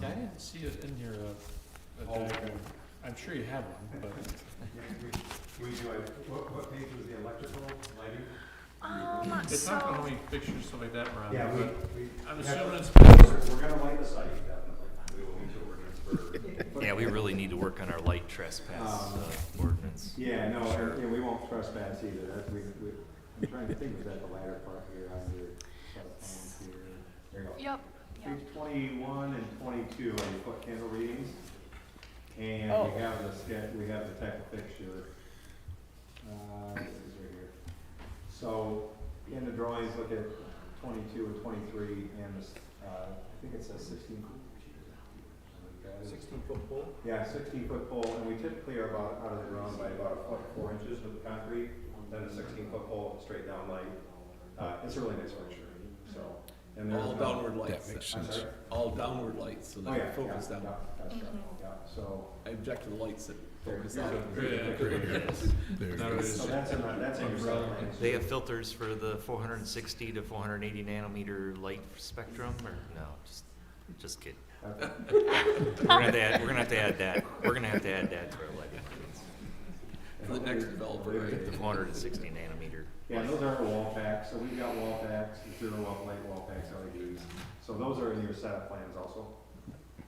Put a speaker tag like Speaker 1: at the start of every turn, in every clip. Speaker 1: didn't see it in your, uh, uh,
Speaker 2: Oh, okay.
Speaker 1: diagram. I'm sure you have one, but
Speaker 2: Yes, we, we do, I, what, what page was the electrical lighting?
Speaker 3: Um,
Speaker 1: it's not the
Speaker 3: so,
Speaker 1: only pictures the way that around,
Speaker 2: Yeah, we,
Speaker 1: but
Speaker 2: we.
Speaker 1: I'm
Speaker 2: we
Speaker 1: assuming
Speaker 2: have-
Speaker 1: it's. because-
Speaker 2: We're gonna light the site, definitely, we will need to ordinance for.
Speaker 4: Yeah, we really need to work on our light trespass
Speaker 2: Um,
Speaker 4: uh, ordinance.
Speaker 2: Yeah, no, and- yeah, we won't trespass either, that, we, we, I'm trying to think, was that the latter part here on your, platforms here, there you go.
Speaker 3: yep, yep.
Speaker 2: Page twenty-one and twenty-two are your foot candle readings. And
Speaker 3: Oh.
Speaker 2: we have the sketch, we have the type of fixture. Uh, this is right here. So in the drawings, look at twenty-two and twenty-three and this, uh, I think it says sixteen. Sixteen foot pole? Yeah, sixteen foot pole, and we typically are about, out of the ground by about a foot, four inches with the concrete, then a sixteen foot pole, straight down light. Uh, it's a really nice picture, so. and there's
Speaker 5: All
Speaker 2: no-
Speaker 5: downward lights.
Speaker 6: That makes
Speaker 2: I'm
Speaker 6: sense.
Speaker 2: sorry?
Speaker 5: All downward lights, so
Speaker 2: Oh, yeah,
Speaker 5: they
Speaker 2: yeah,
Speaker 5: focus
Speaker 2: yeah,
Speaker 5: down.
Speaker 2: that's right,
Speaker 3: Mhm.
Speaker 2: yeah. so.
Speaker 5: I object to the lights that
Speaker 2: there-
Speaker 5: focus
Speaker 2: here's
Speaker 5: on.
Speaker 2: a-
Speaker 1: Yeah,
Speaker 2: here's a
Speaker 1: there
Speaker 2: picture.
Speaker 1: it is. Now it is.
Speaker 2: So that's in, the- that's in your
Speaker 1: Umbrella.
Speaker 2: site plan.
Speaker 4: They have filters for the four hundred and sixty to four hundred and eighty nanometer light spectrum, or, no, just, just kidding.
Speaker 2: Okay.
Speaker 4: We're gonna have to add, we're gonna have to add that, we're gonna have to add that to our lighting. ordinance.
Speaker 5: For the next developer,
Speaker 4: The
Speaker 5: right?
Speaker 4: four hundred and sixty nanometer.
Speaker 2: Yeah, and those aren't wall packs, so we've got wall packs, zero wall light wall packs, LEDs, so those are in your setup plans also.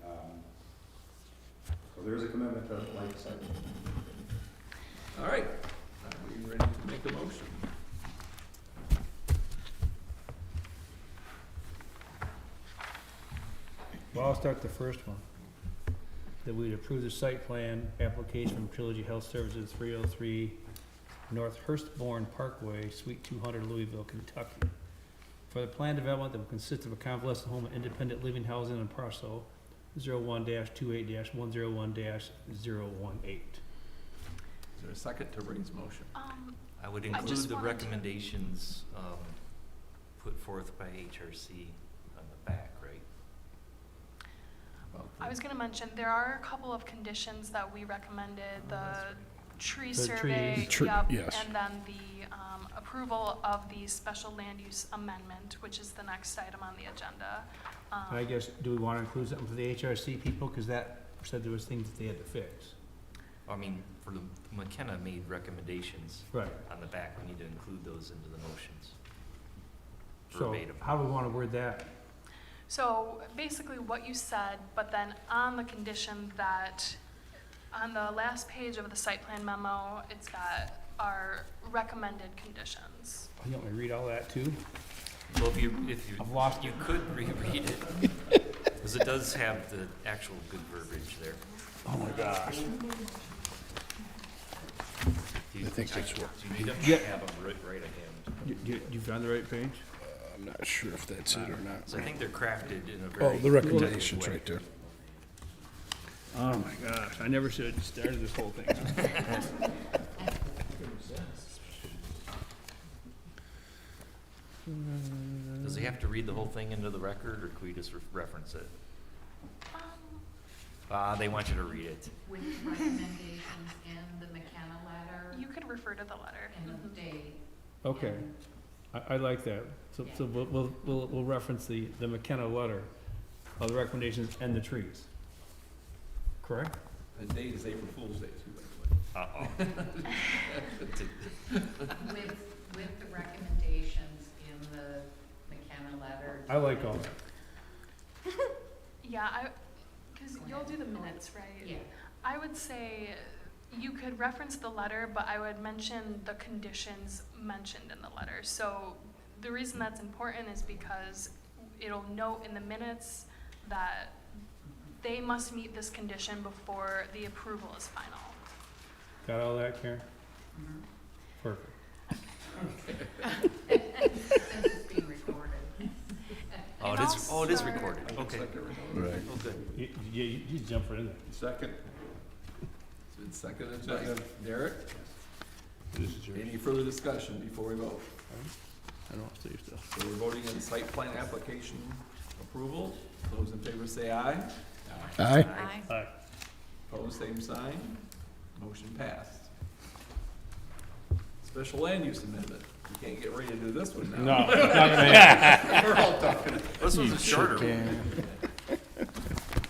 Speaker 2: Um, So there's a commitment to light site.
Speaker 5: All right, are we ready to make a motion?
Speaker 7: Well, I'll start the first one. That we'd approve the site plan application from Trilogy Health Services, three oh three North Hurstbourne Parkway, Suite two hundred, Louisville, Kentucky. For the planned development that will consist of a convalescent home and independent living housing and parcel zero one dash two eight dash one zero one dash zero one eight.
Speaker 5: Is there a second to Ray's motion?
Speaker 3: Um,
Speaker 4: I would
Speaker 3: I
Speaker 4: include
Speaker 3: just
Speaker 4: the
Speaker 3: wanted to-
Speaker 4: recommendations, um, put forth by HRC on the back, right?
Speaker 5: About the-
Speaker 3: I was gonna mention, there are a couple of conditions that we recommended, the tree
Speaker 7: The
Speaker 3: survey,
Speaker 7: trees.
Speaker 6: Tree-
Speaker 3: yep,
Speaker 6: yes.
Speaker 3: and then the, um, approval of the special land use amendment, which is the next item on the agenda. Um,
Speaker 7: I guess, do we wanna include something for the HRC people, cause that said there was things that they had to fix.
Speaker 4: I mean, for the, McKenna made recommendations
Speaker 7: Right.
Speaker 4: on the back, we need to include those into the motions.
Speaker 7: So,
Speaker 4: Verbatim.
Speaker 7: how do we wanna word that?
Speaker 3: So basically what you said, but then on the condition that, on the last page of the site plan memo, it's got our recommended conditions.
Speaker 7: You want me to read all that too?
Speaker 4: Well, if you, if you,
Speaker 7: I've lost
Speaker 4: you could reread it, because it does have the actual good verbiage there.
Speaker 6: Oh my gosh.
Speaker 4: Do you-
Speaker 6: I think that's what-
Speaker 4: Do you need them? I have them right, right at hand.
Speaker 7: You, you, you found the right page?
Speaker 6: I'm not sure if that's it or not.
Speaker 4: So I think they're crafted in a very.
Speaker 6: Oh, the
Speaker 4: protective
Speaker 6: recommendations
Speaker 4: way.
Speaker 6: right there.
Speaker 7: Oh my gosh, I never should have started this whole thing.
Speaker 4: Does he have to read the whole thing into the record, or can we just re- reference it?
Speaker 3: Um,
Speaker 4: Uh, they want you to read it.
Speaker 8: with recommendations in the McKenna letter
Speaker 3: You could refer to the letter.
Speaker 8: and the date.
Speaker 7: Okay, I, I like that. So, so we'll, we'll, we'll, we'll reference the, the McKenna letter of the recommendations and the trees. Correct?
Speaker 5: The date is April Fool's Day, too, by the way.
Speaker 4: Uh-oh.
Speaker 8: and With, with the recommendations in the McKenna letter.
Speaker 7: I like all that.
Speaker 3: Yeah, I, because you'll do the minutes, right?
Speaker 8: Yeah,
Speaker 3: I would say you could reference the letter, but I would mention the conditions mentioned in the letter. So the reason that's important is because it'll note in the minutes that they must meet this condition before the approval is final.
Speaker 7: Got all that, Karen?
Speaker 8: mhm.
Speaker 7: Perfect.
Speaker 8: since it's being recorded.
Speaker 4: Oh, it is, oh, it is recorded,
Speaker 5: I can
Speaker 4: okay.
Speaker 5: second it.
Speaker 6: Right.
Speaker 4: Oh, good.
Speaker 7: You, you, you you jump right in there.
Speaker 5: Second. It's been seconded by Derek.
Speaker 6: This is yours.
Speaker 5: Any further discussion before we vote?
Speaker 6: I don't have to use this.
Speaker 5: So we're voting on site plan application approval. Those in favor say aye.
Speaker 6: Aye.
Speaker 4: Aye.
Speaker 7: Aye.
Speaker 5: Opposed, same sign. Motion passed. Special land use amendment. You can't get ready to do this one now.
Speaker 7: No, it's not gonna happen.
Speaker 5: We're all talking.
Speaker 4: This was a shorter one.
Speaker 6: Can-